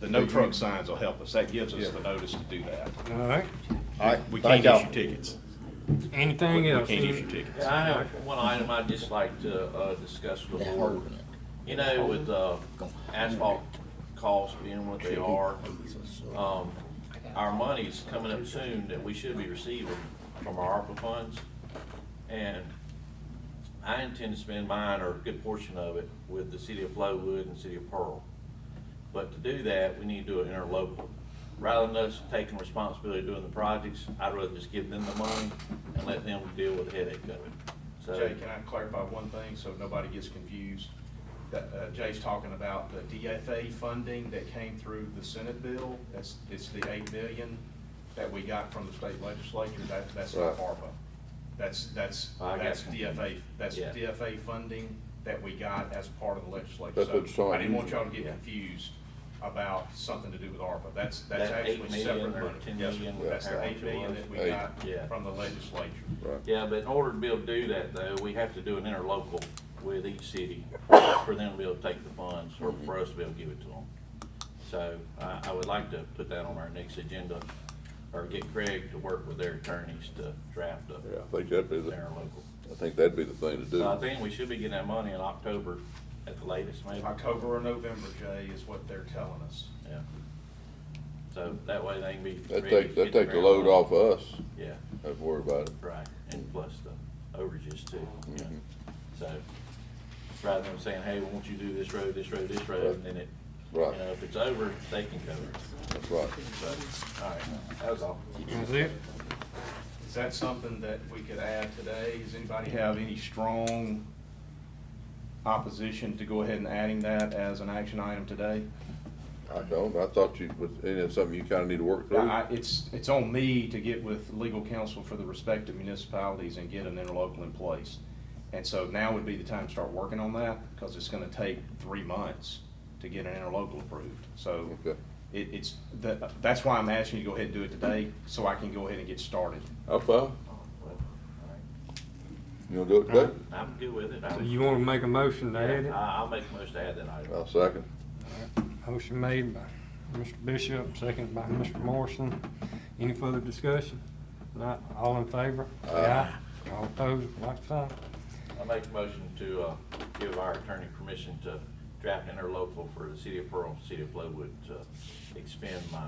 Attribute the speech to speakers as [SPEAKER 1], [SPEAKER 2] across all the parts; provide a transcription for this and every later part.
[SPEAKER 1] The no truck signs will help us. That gives us the notice to do that.
[SPEAKER 2] All right,
[SPEAKER 3] All right,
[SPEAKER 1] We
[SPEAKER 3] thank
[SPEAKER 1] can't
[SPEAKER 3] y'all.
[SPEAKER 1] issue tickets. We
[SPEAKER 2] anything
[SPEAKER 1] we
[SPEAKER 2] else?
[SPEAKER 1] can't issue tickets.
[SPEAKER 4] Yeah, I know, one item I'd just like to, uh, discuss with the board, you know, with, uh, asphalt costs being what they are, um, our money's coming up soon that we should be receiving from our ARPA funds, and I intend to spend mine or a good portion of it with the city of Flowood and city of Pearl. But to do that, we need to do it interlocal. Rather than us taking responsibility doing the projects, I'd rather just give them the money and let them deal with the headache of it. So,
[SPEAKER 1] Jay, can I clarify one thing so nobody gets confused? That, uh, Jay's talking about the DFA funding that came through the Senate bill. That's, it's the eight million that we got from the state legislature. That, that's not
[SPEAKER 3] Right.
[SPEAKER 1] ARPA. That's, that's,
[SPEAKER 4] I got
[SPEAKER 1] that's
[SPEAKER 4] you.
[SPEAKER 1] DFA, that's
[SPEAKER 4] Yeah.
[SPEAKER 1] DFA funding that we got as part of the legislature.
[SPEAKER 3] That's what
[SPEAKER 1] So
[SPEAKER 3] you're
[SPEAKER 1] I didn't want y'all
[SPEAKER 3] talking
[SPEAKER 1] to get
[SPEAKER 4] Yeah.
[SPEAKER 1] confused about something to do with ARPA. That's, that's
[SPEAKER 4] That eight
[SPEAKER 1] actually
[SPEAKER 4] million
[SPEAKER 1] separate
[SPEAKER 4] or
[SPEAKER 1] money.
[SPEAKER 4] ten
[SPEAKER 1] Yes,
[SPEAKER 4] million,
[SPEAKER 1] That's the
[SPEAKER 4] whatever
[SPEAKER 1] eight
[SPEAKER 4] it
[SPEAKER 1] million
[SPEAKER 4] was.
[SPEAKER 1] that we
[SPEAKER 3] Eight.
[SPEAKER 4] Yeah.
[SPEAKER 1] got from the legislature.
[SPEAKER 3] Right.
[SPEAKER 4] yeah, but in order to be able to do that though, we have to do an interlocal with each city for them to be able to take the funds or for us to be able to give it to them. So I, I would like to put that on our next agenda or get Craig to work with their attorneys to draft up
[SPEAKER 3] Yeah, I think that'd be, the-
[SPEAKER 4] interlocal.
[SPEAKER 3] I think that'd be the thing to do.
[SPEAKER 4] So I think we should be getting that money in October at the latest, maybe.
[SPEAKER 1] October or November, Jay, is what they're telling us.
[SPEAKER 4] Yeah. So that way they can be.
[SPEAKER 3] That
[SPEAKER 4] ready
[SPEAKER 3] takes,
[SPEAKER 4] to
[SPEAKER 3] that
[SPEAKER 4] hit the
[SPEAKER 3] takes a
[SPEAKER 4] ground
[SPEAKER 3] load
[SPEAKER 4] running.
[SPEAKER 3] off of us,
[SPEAKER 4] Yeah,
[SPEAKER 3] I'd worry about it.
[SPEAKER 4] right, and plus the overages too, you
[SPEAKER 3] Mm-hmm.
[SPEAKER 4] know. So, rather than saying, hey, we want you to do this road, this road, this road, and then it, you
[SPEAKER 3] Right.
[SPEAKER 4] know, if it's over, they can cover it.
[SPEAKER 3] That's right.
[SPEAKER 4] So, all right, that was all.
[SPEAKER 2] That's it?
[SPEAKER 1] Is that something that we could add today? Does anybody have any strong opposition to go ahead and adding that as an action item today?
[SPEAKER 3] I don't, I thought you, was, ain't that something you kinda need to work through?
[SPEAKER 1] I, it's, it's on me to get with legal counsel for the respective municipalities and get an interlocal in place. And so now would be the time to start working on that, because it's gonna take three months to get an interlocal approved. So
[SPEAKER 3] Okay.
[SPEAKER 1] it, it's, that, that's why I'm asking you to go ahead and do it today, so I can go ahead and get started.
[SPEAKER 3] I'm fine,
[SPEAKER 4] Well, all
[SPEAKER 3] you gonna do it today?
[SPEAKER 4] right. I'm good with it. I
[SPEAKER 2] So
[SPEAKER 4] was-
[SPEAKER 2] you wanna make a motion to add it?
[SPEAKER 4] Yeah, I- I'll make a motion to add that item.
[SPEAKER 3] I'll second.
[SPEAKER 2] Motion made by Mr. Bishop, seconded by Mr. Morrison. Any further discussion? Not, all in favor? Aye. All opposed, like sign?
[SPEAKER 4] I make a motion to, uh, give our attorney permission to draft interlocal for the city of Pearl, city of Flowood, to expend my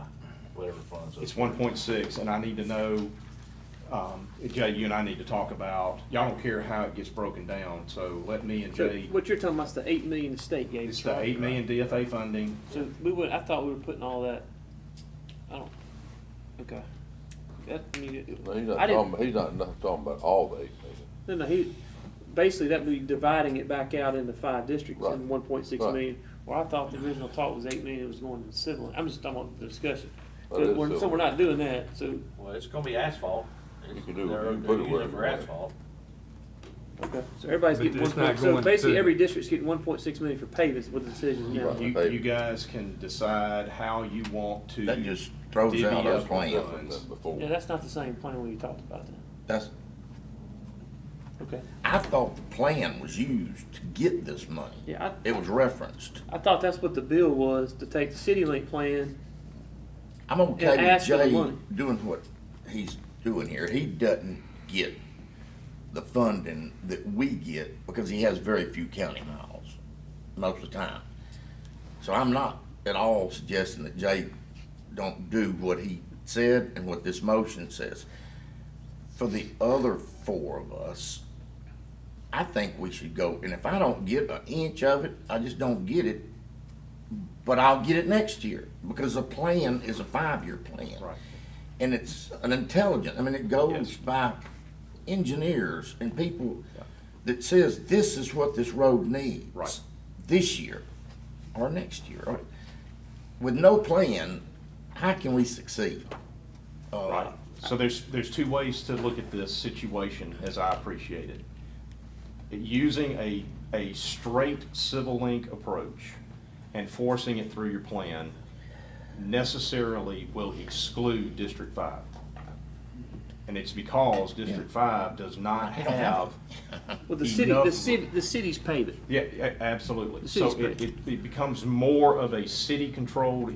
[SPEAKER 4] whatever funds.
[SPEAKER 1] It's one point six, and I need to know, um, Jay, you and I need to talk about, y'all don't care how it gets broken down, so let me and
[SPEAKER 5] So
[SPEAKER 1] Jay,
[SPEAKER 5] what you're talking about is the eight million the state gave
[SPEAKER 1] it's
[SPEAKER 5] us,
[SPEAKER 1] the
[SPEAKER 5] right?
[SPEAKER 1] eight million DFA funding.
[SPEAKER 5] So we would, I thought we were putting all that, I don't, okay. That, I mean,
[SPEAKER 3] No, He's not
[SPEAKER 5] I didn't-
[SPEAKER 3] talking, he's not, not talking about all the eight million.
[SPEAKER 5] no, no, he, basically that would be dividing it back out into five districts
[SPEAKER 3] Right.
[SPEAKER 5] and one point six
[SPEAKER 3] Right.
[SPEAKER 5] million. Well, I thought the original talk was eight million, it was going to civil, I'm just talking about the discussion.
[SPEAKER 3] That
[SPEAKER 5] So
[SPEAKER 3] is
[SPEAKER 5] we're, so
[SPEAKER 3] civil.
[SPEAKER 5] we're not doing that, so,
[SPEAKER 4] Well, it's gonna be asphalt.
[SPEAKER 3] You can do it.
[SPEAKER 4] They're-
[SPEAKER 3] You can put it
[SPEAKER 4] they're using
[SPEAKER 3] wherever
[SPEAKER 4] for
[SPEAKER 3] you want.
[SPEAKER 4] asphalt.
[SPEAKER 5] okay, so everybody's
[SPEAKER 2] But
[SPEAKER 5] getting
[SPEAKER 2] it's
[SPEAKER 5] one
[SPEAKER 2] not
[SPEAKER 5] point, so
[SPEAKER 2] going
[SPEAKER 5] basically
[SPEAKER 2] to-
[SPEAKER 5] every district's getting one point six million for paving with the decision now.
[SPEAKER 3] Right.
[SPEAKER 1] You, you guys can decide how you want to.
[SPEAKER 6] That just throws
[SPEAKER 1] divvy
[SPEAKER 6] out our
[SPEAKER 1] up the
[SPEAKER 6] plan.
[SPEAKER 1] funds.
[SPEAKER 3] That's Before.
[SPEAKER 5] Yeah, that's not the same plan we talked about then,
[SPEAKER 6] That's,
[SPEAKER 5] okay.
[SPEAKER 6] I thought the plan was used to get this money.
[SPEAKER 5] Yeah, I,
[SPEAKER 6] It was referenced.
[SPEAKER 5] I thought that's what the bill was, to take the city link plan.
[SPEAKER 6] I'm okay
[SPEAKER 5] And
[SPEAKER 6] with
[SPEAKER 5] ask for the
[SPEAKER 6] Jay
[SPEAKER 5] money.
[SPEAKER 6] doing what he's doing here. He doesn't get the funding that we get because he has very few county miles most of the time. So I'm not at all suggesting that Jay don't do what he said and what this motion says. For the other four of us, I think we should go, and if I don't get an inch of it, I just don't get it, but I'll get it next year, because the plan is a five-year plan.
[SPEAKER 1] Right.
[SPEAKER 6] And it's an intelligent, I mean, it
[SPEAKER 1] Yes.
[SPEAKER 6] goes by engineers and people that says, this is what this road needs.
[SPEAKER 1] Right.
[SPEAKER 6] This year, or next year. or- With no plan, how can we succeed? Uh,
[SPEAKER 1] Right. So there's, there's two ways to look at this situation, as I appreciate it. Using a, a straight civil link approach and forcing it through your plan necessarily will exclude District Five. And it's because District Five does not have,
[SPEAKER 5] Well, the city,
[SPEAKER 1] Enough.
[SPEAKER 5] the city, the city's paving.
[SPEAKER 1] yeah, a- absolutely.
[SPEAKER 5] The
[SPEAKER 1] So it,
[SPEAKER 5] city's
[SPEAKER 1] it it becomes more of a city-controlled